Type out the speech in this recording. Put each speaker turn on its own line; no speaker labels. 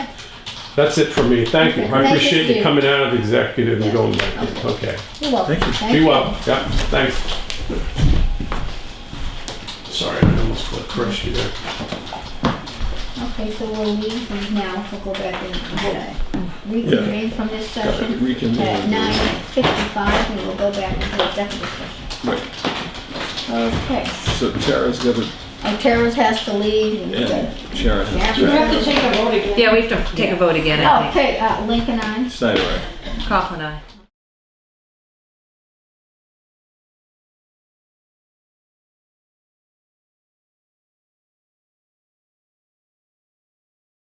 That's it for me. Thank you. I
Thank you,
appreciate you
Steve.
coming out of executive and
Yeah.
going back. Okay.
You're welcome.
Thank you.
Be well. Yeah, thanks. Sorry, I almost crushed you there.
Okay, so we'll leave and now. We'll go back and uh, reconvene from this
Gotta
session
reconvene.
at nine fifty-five, and we'll go back into executive session.
Right,
Okay.
so Tara's got to,
And Tara's has to leave. and,
and Sharon has
Yeah.
We
to.
have to take a vote again.
Yeah, we have to take a vote again,
uh,
I think.
Okay, uh, Lincoln, I.
Snyder, aye.
Kaufman, aye.